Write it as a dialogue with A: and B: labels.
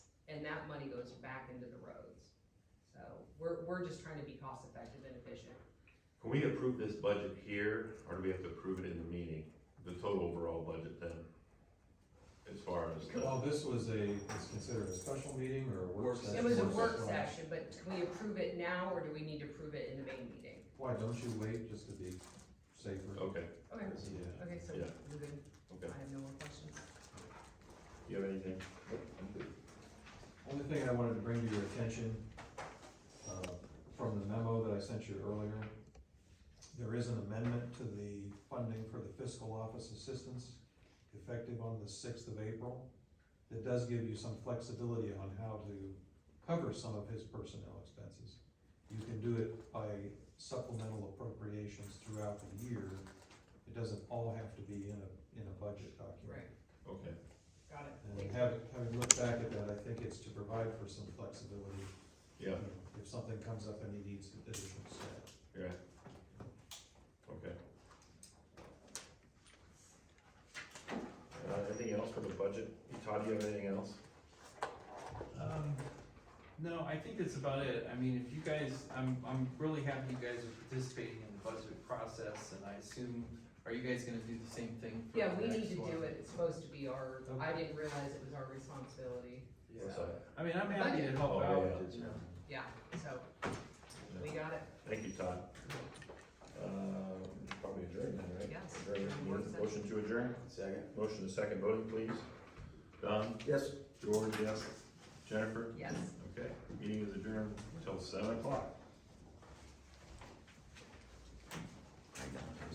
A: money goes back into the roads. So we're, we're just trying to be cost effective and efficient.
B: Can we approve this budget here, or do we have to approve it in the meeting, the total overall budget then? As far as, the-
C: Well, this was a, it's considered a special meeting or a work
D: It
C: session?
A: It was a work session, but can we approve it now or do we need to approve it in the main meeting?
C: Why, don't you wait just to be safer?
B: okay,
A: Okay,
C: Yeah.
A: okay, so
B: Yeah.
A: we're good. I
B: okay.
A: have no more questions.
B: You have anything?
C: Only thing I wanted to bring to your attention, uh, from the memo that I sent you earlier, there is an amendment to the funding for the fiscal office assistance effective on the sixth of April. That does give you some flexibility on how to cover some of his personnel expenses. You can do it by supplemental appropriations throughout the year. It doesn't all have to be in a, in a budget document.
A: Right,
B: Okay,
A: got it.
C: And having, having looked back at that, I think it's to provide for some flexibility.
B: yeah,
C: you know, If something comes up and he needs additional staff.
B: you're right. Okay. Uh, anything else for the budget? Todd, do you have anything else?
D: Um, no, I think that's about it. I mean, if you guys, I'm, I'm really happy you guys are participating in the budget process, and I assume, are you guys gonna do the same thing? for
A: Yeah,
D: the
A: we need
D: next
A: to
D: one?
A: do it. It's supposed to be our, I didn't realize it was our responsibility.
B: What's
A: So,
B: that?
D: I mean, I'm happy to
B: Oh,
D: help out.
B: yeah.
D: you know.
A: Yeah, so we got it,
B: Thank you, Todd. Um, Probably adjourned then, right?
A: yes.
B: Adjourn.
A: Work session.
B: Motion to adjourn? Second. Motion to second voting, please. Don? Yes. George, yes. Jennifer?
A: Yes.
B: Okay, meeting is adjourned until seven o'clock.